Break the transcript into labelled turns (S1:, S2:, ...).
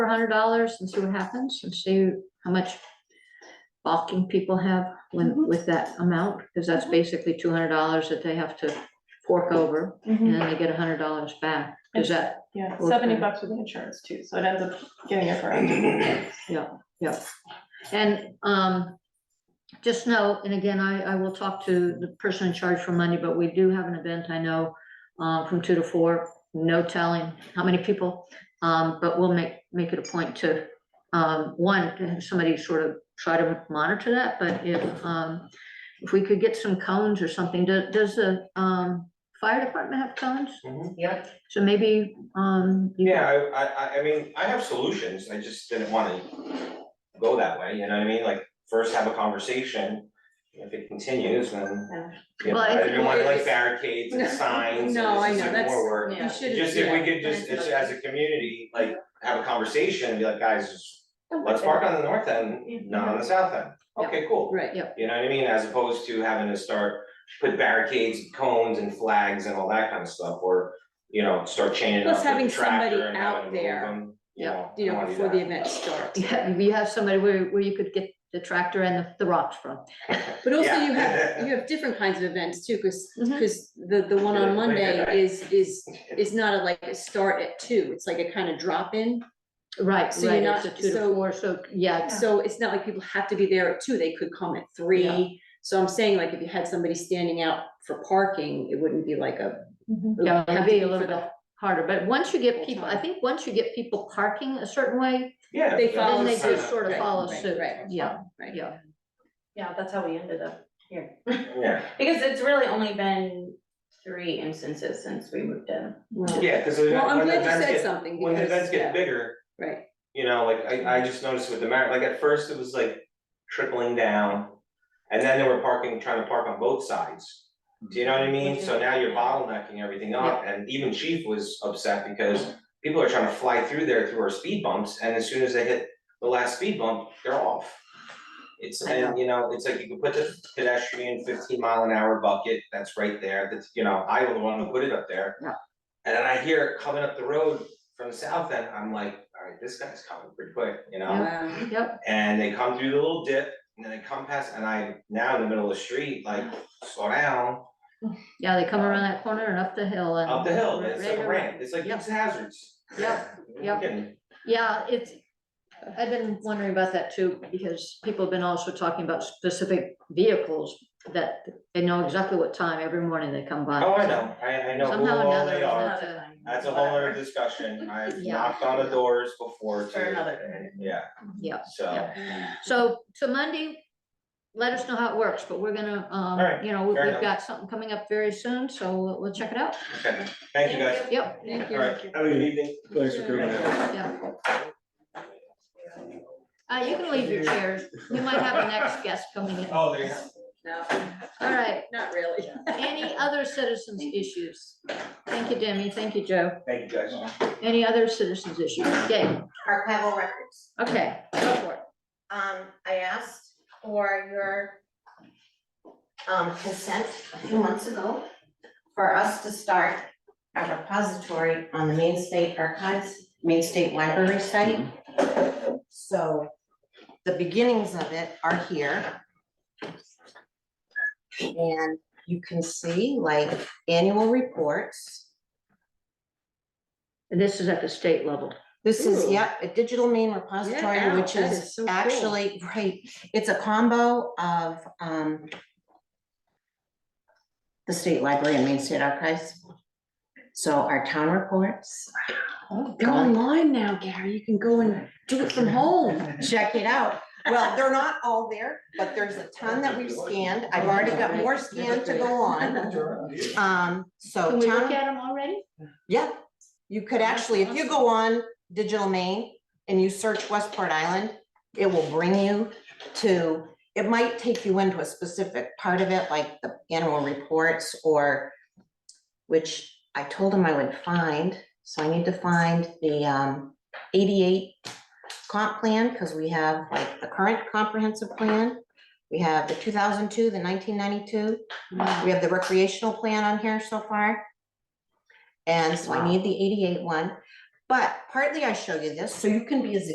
S1: hundred dollars and see what happens and see how much balking people have when,
S2: Mhm.
S1: with that amount, because that's
S2: Mhm.
S1: basically two hundred dollars that they have to fork over, and
S2: Mhm.
S1: then they get hundred dollars back. Is that,
S2: Yeah,
S1: Okay.
S2: seventy bucks with the insurance too, so it ends up getting it for around $200 bucks.
S1: yeah, yeah. And, um, just know, and again, I, I will talk to the person in charge for Monday, but we do have an event, I know, uh, from two to four, no telling how many people. Um, but we'll make, make it a point to, um, one, to have somebody sort of try to monitor that, but if, um, if we could get some cones or something, does, does the, um, fire department have cones?
S3: Mhm.
S4: Yeah.
S1: So maybe, um, you-
S3: Yeah, I, I, I, I mean, I have solutions, I just didn't wanna go that way, you know what I mean, like, first have a conversation. If it continues, then, you know,
S1: Well, I
S3: I
S1: think
S3: didn't want
S4: it
S3: like
S4: is-
S3: barricades and signs,
S4: No,
S3: and
S4: I
S3: it's
S4: know,
S3: just like
S4: that's-
S3: more work.
S4: yeah. You
S3: It's Just if we could just, it's as a community, like, have a conversation and be like, guys, just, let's park on the north end, not on the south end.
S1: Yeah.
S3: Okay, cool,
S4: Right.
S3: you know what I mean, as opposed to having to start, put barricades, cones and flags and all that kind of stuff, or, you know, start chaining up
S4: Plus having
S3: the tractor
S4: somebody
S3: and
S4: out
S3: having to move
S4: there,
S3: them, you
S1: Yeah.
S3: know, I don't
S4: You know,
S3: wanna do
S4: before the
S3: that.
S4: event starts.
S1: yeah, you have somebody where, where you could get the tractor and the- the rocks from.
S4: But also
S3: Yeah.
S4: you have, you have different kinds of events too, because,
S1: Mhm.
S4: the, the one on
S3: Yeah, like
S4: Monday
S3: that.
S4: is, is, is not a like a start at two. It's like a kind of drop in.
S1: Right,
S4: So you're
S1: right,
S4: not-
S1: it's a two to
S4: so-
S1: four, so, yeah,
S4: So it's not like people have to be there at two. They could come at
S1: Yeah.
S4: three. So I'm saying like if you had somebody standing out for parking, it wouldn't be like a.
S2: Mhm.
S4: would
S1: Yeah, it'd
S4: have to
S1: be a
S4: for
S1: little
S4: the-
S1: bit harder, but once you get
S4: Full
S1: people, I
S4: time.
S1: think once you get people parking a certain way,
S3: Yeah.
S4: They
S3: that's
S4: follow
S1: then they
S3: kind
S1: just sort of
S4: Right,
S1: follow
S4: right,
S1: suit,
S4: right.
S1: yeah,
S4: Right.
S1: yeah.
S5: Yeah, that's how we ended up here,
S3: Yeah,
S5: because it's really only been three instances since we moved in.
S3: yeah, cause
S4: Well, I'm
S3: when the
S4: glad you said
S3: events get,
S4: something
S3: when the
S4: because,
S3: events get
S4: yeah,
S3: bigger,
S4: right.
S3: you know, like I
S1: Mm-hmm.
S3: I just noticed with the Mar, like at first it was like trickling down. And then they were parking, trying to park on both sides, do you know what I mean?
S1: Mm-hmm.
S3: So now you're bottlenecking everything up and even Chief was upset because. People are trying to fly through there through our speed bumps and as soon as they hit the last speed bump, they're off. It's
S1: I
S3: and you know, it's like you could put the pedestrian fifteen mile an hour bucket that's right there, that's, you know, I was the one who put it up there.
S1: Yeah.
S3: And then I hear it coming up the road from the south end, I'm like, alright, this guy's coming pretty quick, you know?
S4: Wow.
S1: Yep,
S3: And they come through the little dip and then they come past and I now in the middle of the street, like, slow down,
S1: yeah, they come around that corner and up the hill and.
S3: up the hill, it's like
S1: Right
S3: a
S1: around.
S3: ramp, it's like
S1: Yep.
S3: it's hazards.
S1: Yep,
S3: You're
S1: yep.
S3: kidding.
S1: Yeah, it's, I've been wondering about that too, because people have been also talking about specific vehicles that they know exactly what time every morning they come by.
S3: Oh, I know, I I know who
S1: Somehow or
S3: all
S1: another,
S3: they
S1: it's
S3: are,
S1: not a-
S3: Oh, that's a whole other discussion, I've
S1: Yeah.
S3: knocked on the doors before too.
S5: For another day.
S3: Yeah,
S1: yeah.
S3: so.
S1: So, so Monday, let us know how it works, but we're gonna, um,
S3: Alright,
S1: you know, we-
S3: fair
S1: we've
S3: enough.
S1: got something coming up very soon, so we'll- we'll check it out.
S3: Okay, thank you guys.
S1: Yep,
S4: Thank you.
S3: Alright, have a good evening.
S6: Thanks for coming out.
S1: yeah. Uh, you can leave your chairs. You might have a next guest coming in. All
S3: Oh, there you go.
S4: No,
S1: right,
S4: not really.
S1: any other citizens' issues? Thank you, Demi. Thank you, Joe.
S3: Thank you guys.
S1: Any other citizens' issues? Dave,
S7: archival records.
S1: okay, go for it.
S7: Um, I asked for your um, consent a few months ago for us to start a repository on the Main State Archives, Main State Library site. So the beginnings of it are here. And you can see like annual reports.
S1: And this is at the state level.
S7: This is,
S4: Ooh.
S7: yep, a digital main repository,
S4: wow,
S7: which
S4: that
S7: is
S4: is so cool.
S7: actually, right, it's a combo of, um, the state library and Main State Archives. So our town reports,
S4: They're online now, Gary. You can go and do it from home.
S7: check it out. Well, they're not all there, but there's a ton that we've scanned. I've already got more scanned to go on. Um, so
S1: Can we look
S7: town,
S1: at them already?
S7: yeah, you could actually, if you go on digital main and you search Westport Island, it will bring you to, it might take you into a specific part of it, like the annual reports or, which I told him I would find, so I need to find the um eighty-eight comp plan, because we have like the current comprehensive plan. We have the two thousand two, the nineteen ninety-two, we have the recreational plan on here so far. And so I need the eighty-eight one,
S4: But partly I show you this, so you can be as